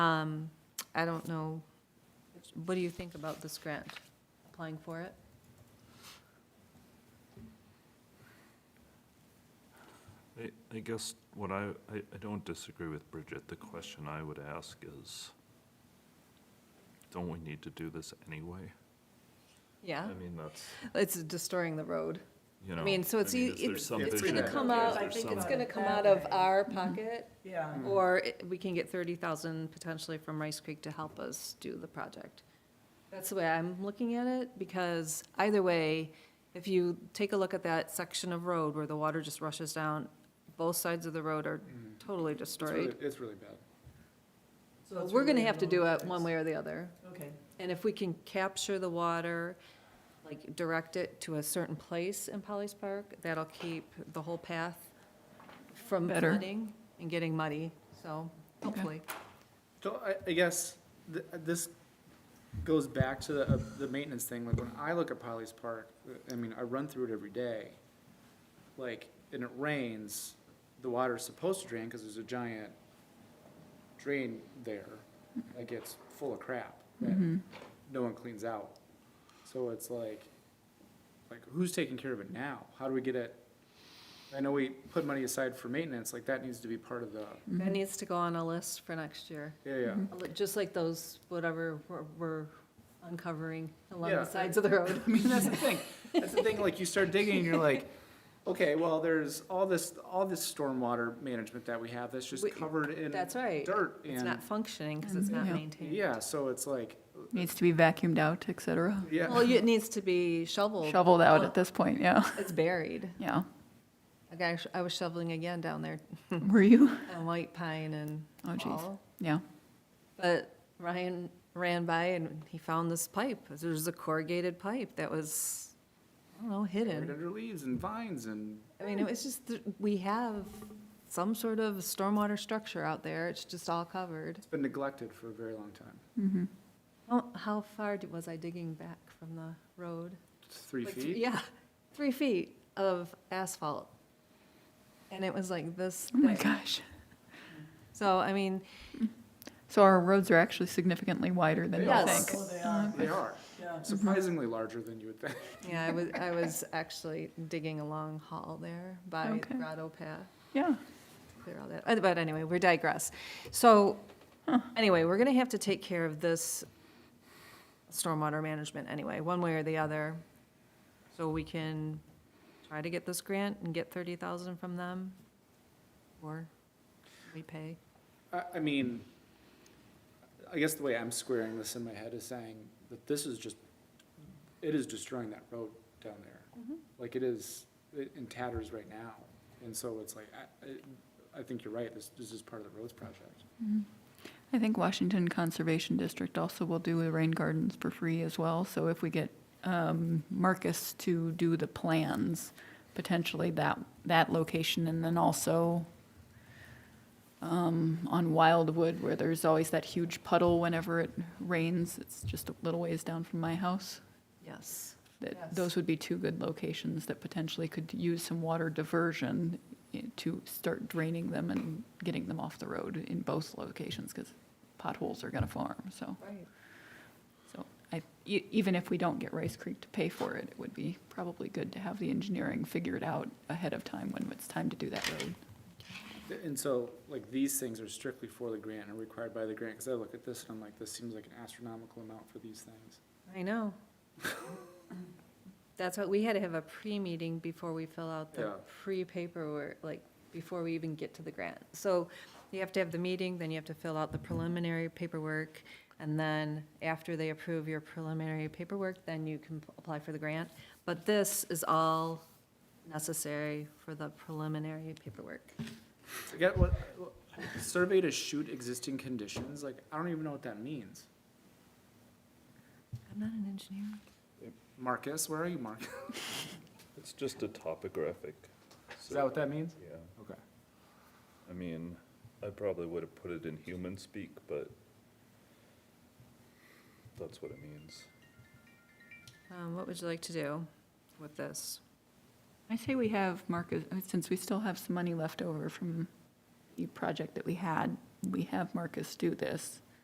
Um, I don't know, what do you think about this grant, applying for it? I, I guess what I, I, I don't disagree with Bridget. The question I would ask is, don't we need to do this anyway? Yeah, I mean, that's, it's destroying the road. Uh, you know. I mean, so it's, mean, e- is there it's, some it's vision gonna out come there? out, Is there I think some- it's about gonna it come out that of way. our pocket, Yeah. or it- we can get thirty thousand potentially from Rice Creek to help us do the project. That's the way I'm looking at it, because either way, if you take a look at that section of road where the water just rushes down, both sides of the road are totally It's really, destroyed. it's really bad. So it's We're gonna really have to no do it difference. one way or the other. Okay, And if we can capture the water, like direct it to a certain place in Polly's Park, that'll keep the whole path from Better. flooding and getting muddy, so hopefully. So I, I guess th- this goes back to the, uh, the maintenance thing, like when I look at Polly's Park, uh, I mean, I run through it every day. Like, and it rains, the water's supposed to drain because there's a giant drain there. Like, it's full of crap that no one cleans out. So it's like, like, who's taking care of it now? How do we get it? I know we put money aside for maintenance, like that needs to be part of the, Mm-hmm. That needs to go on a list for next year, yeah, yeah. just like those, whatever we're- we're uncovering along Yeah. the sides of the road. I mean, that's the thing. That's the thing. Like you start digging, and you're like, okay, well, there's all this all this stormwater management that we have that's just We- covered in That's right. dirt It's and not functioning because it's not Yeah. maintained. yeah. So it's like Needs to be vacuumed out, et cetera. yeah, Well, it needs to be shoveled. Shoveled out at this point, yeah, It's buried. yeah. Like, I sh- I was shoveling again down there Were you? on White Pine and Oh, jeez. all. Yeah. But Ryan ran by and he found this pipe. There's a corrugated pipe that was, I don't know, buried hidden. under leaves and vines and I mean, it was just, th- we have some sort of stormwater structure out there. It's just all covered. it's been neglected for a very long time. Mm-hmm. How, how far d- was I digging back from the road? It's three Like, feet. Yeah, three feet of asphalt. And it was like this. Oh my thick. gosh. So, I mean, So our roads are actually significantly wider than you Yes. think. oh, they Mm. are, They are yeah. surprisingly larger than you would think. yeah, I was, I was actually digging a long hall there by Okay. the Grotto Path. Yeah. clear all that. Uh, But anyway, we digress. So, anyway, we're gonna have to take care of this stormwater management anyway, one way or the other. So we can try to get this grant and get thirty thousand from them, or we pay. I, I mean, I guess the way I'm squaring this in my head is saying that this is just, it is destroying that road down there. Like it is, it in tatters right now. And so it's like, I, I- I think you're right, this, this is part of the roads project. I think Washington Conservation District also will do the rain gardens for free as well. So if we get um, Marcus to do the plans, potentially that, that location and then also um, on Wildwood where there's always that huge puddle whenever it rains. It's just a little ways down from my house. Yes. that Yes. those would be two good locations that potentially could use some water diversion i- to start draining them and getting them off the road in both locations, because potholes are gonna form, so. Right. So I, e- even if we don't get Rice Creek to pay for it, it would be probably good to have the engineering figured out ahead of time when it's time to do that road. And so, like, these things are strictly for the grant and required by the grant, because I look at this and I'm like, this seems like an astronomical amount for these things. I know. That's what, we had to have a pre-meeting before we fill out the Yeah. pre-paperwork, like, before we even get to the grant. So you have to have the meeting, then you have to fill out the preliminary paperwork, and then after they approve your preliminary paperwork, then you can p- apply for the grant. But this is all necessary for the preliminary paperwork. I get what, what- survey to shoot existing conditions, like, I don't even know what that means. I'm not an engineer. Marcus, where are you, Marcus? It's just a topographic. Is that what that means? Yeah, Okay. I mean, I probably would have put it in human speak, but that's what it means. Um, what would you like to do with this? I say we have Marcus, since we still have some money left over from the project that we had, we have Marcus do this.